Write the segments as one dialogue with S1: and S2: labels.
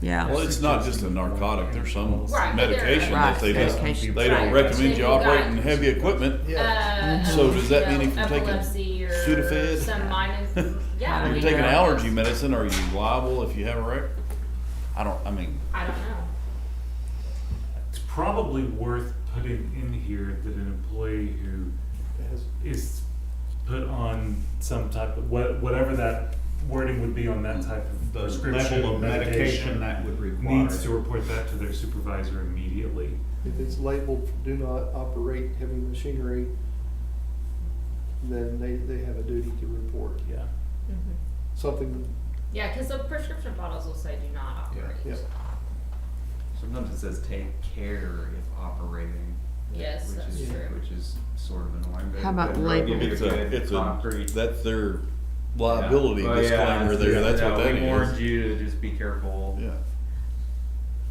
S1: yeah.
S2: Well, it's not just a narcotic, there's some
S3: Right, there-
S2: medication that they
S1: Right,
S2: just,
S1: medication.
S2: they don't
S3: Right.
S2: recommend you
S3: Right.
S2: operating heavy equipment.
S3: Uh,
S2: So does that
S3: you
S2: mean if
S3: know,
S2: you're taking
S3: epilepsy or
S2: Sudafed?
S3: Some minus, yeah. I
S2: If
S3: mean,
S2: you're taking
S3: that's-
S2: allergy medicine, are you liable if you have a wreck? I don't, I mean,
S3: I don't know.
S4: It's probably worth putting in here that an employee who is put on some type of, wha- whatever that wording would be on that type of
S5: The
S4: prescription
S5: level
S4: or
S5: of medication
S4: medication,
S5: that would require.
S4: needs to report that to their supervisor immediately.
S6: If it's labeled, do not operate heavy machinery, then they, they have a duty to report.
S4: Yeah.
S6: Something,
S3: Mm-hmm. Yeah, cause the prescription bottles will say do not
S5: Yeah.
S3: operate.
S6: yeah,
S7: Sometimes it says take care if operating.
S3: Yes,
S7: which
S3: that's
S7: is,
S3: true.
S7: Which is sort of annoying. but-
S1: How about
S7: but they'll give
S1: label?
S7: you
S2: it's a,
S7: good
S2: it's a,
S7: concrete-
S2: that's their
S7: Yeah.
S2: liability
S7: Well, yeah,
S2: disclaimer there, that's what
S7: yeah,
S2: that
S7: We warned
S2: is.
S7: you to just be careful.
S2: Yeah,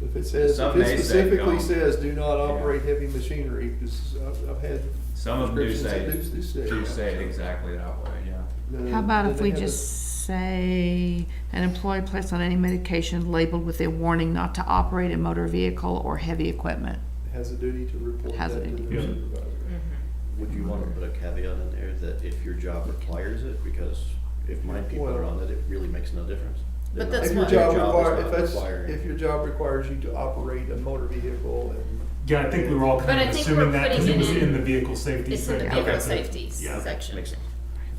S6: if it says, if
S7: Some may
S6: it
S7: say
S6: specifically
S7: don't.
S6: says, do not operate heavy machinery, because I've, I've had.
S7: Some of them do say,
S6: prescriptions that
S7: do say it exactly that way, yeah.
S6: then-
S1: How about
S6: then
S1: if
S6: they
S1: we
S6: have a-
S1: just say, an employee placed on any medication labeled with a warning not to operate a motor vehicle or heavy equipment?
S6: Has a duty to report that
S1: Has a
S6: to
S1: duty.
S6: the
S4: Yeah.
S6: supervisor.
S3: Mm-hmm.
S8: Would you wanna put a caveat in there that if your job requires it, because if my people are
S6: Well-
S8: on it, it really makes no difference. They're
S9: But
S8: not-
S9: that's
S6: If
S8: if
S6: your
S9: what-
S6: job
S8: is
S6: require,
S8: not
S6: if that's,
S8: requiring-
S6: if your job requires you to operate a motor vehicle and
S4: Yeah, I think we were all
S3: But
S4: kind
S3: I
S4: of
S3: think
S4: assuming
S3: we're
S4: that, cause
S3: putting
S4: it
S3: it
S4: was
S3: in-
S4: in the vehicle safety
S9: It's in the
S4: section.
S9: vehicle
S4: Okay.
S9: safety
S4: Yeah.
S9: section.
S8: Makes sense.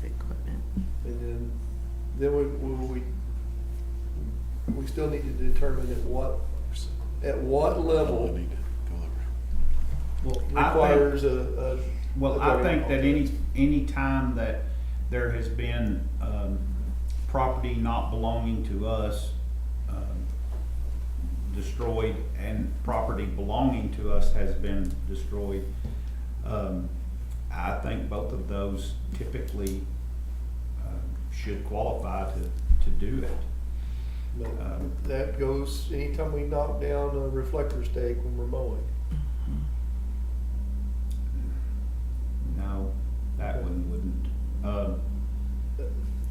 S1: Heavy equipment.
S6: And then, then we, we, we, we still need to determine at what, at what
S2: we
S6: level
S2: need to go over.
S5: Well, I think-
S6: requires a, a.
S5: Well,
S6: a
S5: I think
S6: driving
S5: that any,
S6: offense.
S5: any time that there has been, um, property not belonging to us, um, destroyed and property belonging to us has been destroyed, um, I think both of those typically, um, should qualify to, to do it. um,
S6: But That goes, anytime we knock down a reflector stake when we're mowing,
S5: No, that one wouldn't. Um,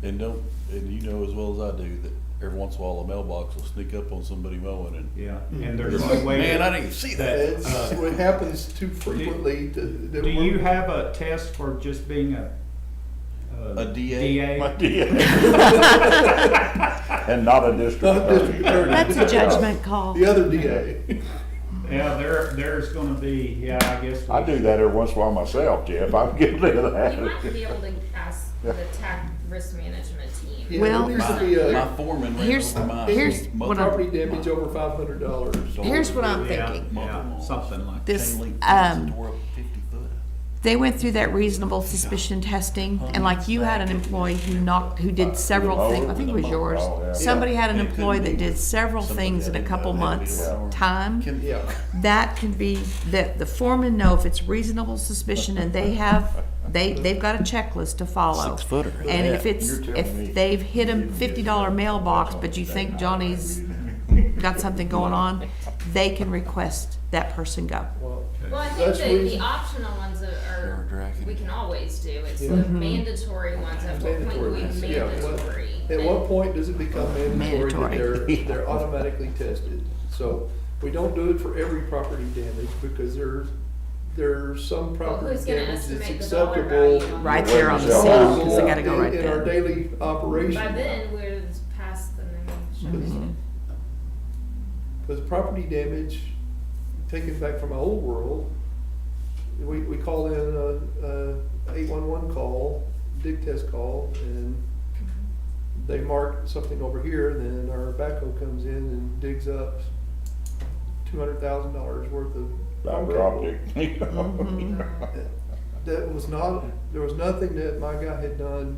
S2: And don't, and you know as well as I do that every once in a while a mailbox will sneak up on somebody mowing and,
S5: yeah, and there's no way.
S2: man, I
S5: that-
S2: didn't even see that.
S5: that,
S6: it's,
S5: uh,
S6: it happens too frequently to. that
S5: Do
S6: we're-
S5: you have a test for just being a?
S2: A DA?
S5: DA?
S2: My DA. And not a district
S6: Not district attorney.
S1: That's a judgment call.
S6: The other DA.
S5: Yeah, there, there's gonna be, yeah, I guess. we-
S10: I do that every once in a while myself, Jeff. I'm guilty of
S3: You might be
S10: that.
S3: able to ask the tax risk management team.
S6: Yeah,
S1: Well-
S6: There needs to be
S2: My,
S6: a,
S2: my foreman ran
S1: Here's-
S2: over my.
S1: here's what I-
S6: property damage over five hundred dollars.
S9: Here's what I'm
S5: Yeah,
S9: thinking.
S5: Yeah, something like. that.
S1: This,
S2: Chain link fence and
S1: um,
S2: tore up fifty foot.
S1: they went through that reasonable suspicion testing, and like you had an employee who knocked, who did several things, I think it was yours. Somebody had an employee that did several things in a couple months' time.
S2: Can-
S6: Yeah.
S1: that can be, that the foreman know if it's reasonable suspicion and they have, they, they've got a checklist to follow.
S2: Six footer.
S1: And if it's,
S10: You're telling me.
S1: if they've hit a fifty dollar mailbox, but you think Johnny's got something going on, they can request that person go.
S6: Well,
S3: Well, I think
S6: That's
S3: the, the
S6: reason-
S3: optional ones are, are,
S2: dragging
S3: we
S2: it.
S3: can always do, it's the
S6: Yeah.
S3: mandatory ones, at what point
S6: Mandatory
S3: we
S6: ones, yeah, what-
S3: mandatory.
S6: At what point does it become mandatory that
S1: Oh, Mandatory.
S6: they're, they're automatically tested? So, we don't do it for every property damage, because there, there are some
S3: Well,
S6: property
S3: Who's gonna
S6: damage that's
S3: estimate the dollar
S6: acceptable.
S3: value? on
S1: Right
S3: that?
S1: there on the
S10: Yeah.
S1: scene, cause they gotta go right
S6: In- In our
S1: there.
S6: daily
S3: By
S6: operation,
S3: then, we're past the
S1: Mm-hmm.
S3: minimum.
S6: Mhm. because property damage, taken back from my old world, we, we call in a, a eight-one-one call, dig test call, and they mark something over here, then our backhoe comes in and digs up two hundred thousand dollars worth of.
S10: Fiber
S6: cable.
S10: optic, you know.
S6: That was not, there was nothing that my guy had done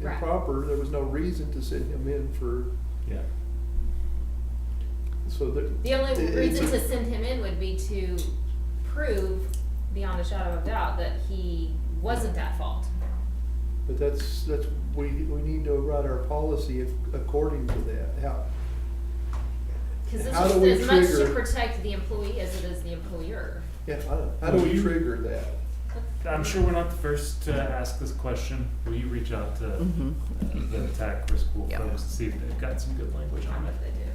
S3: Right.
S6: improper, there was no reason to send him in for,
S5: Yeah.
S6: so that.
S3: The
S6: it-
S3: only
S6: it's
S3: reason
S6: a-
S3: to send him in would be to prove beyond a shadow of doubt that he wasn't at fault.
S6: But that's, that's, we, we need to write our policy ac- according to that, how,
S3: Cause it's
S6: How
S3: just
S6: do we
S3: as much to
S6: trigger-
S3: protect the employee as it is the employer.
S6: yeah, I don't, how do
S4: Will
S6: we
S4: you-
S6: trigger that?
S4: I'm sure we're not the first to ask this question. Will
S3: Mm-hmm.
S4: you reach out to uh, the TAC risk pool
S1: Yeah.
S4: folks to see if they've got some good language on it?
S3: What they do.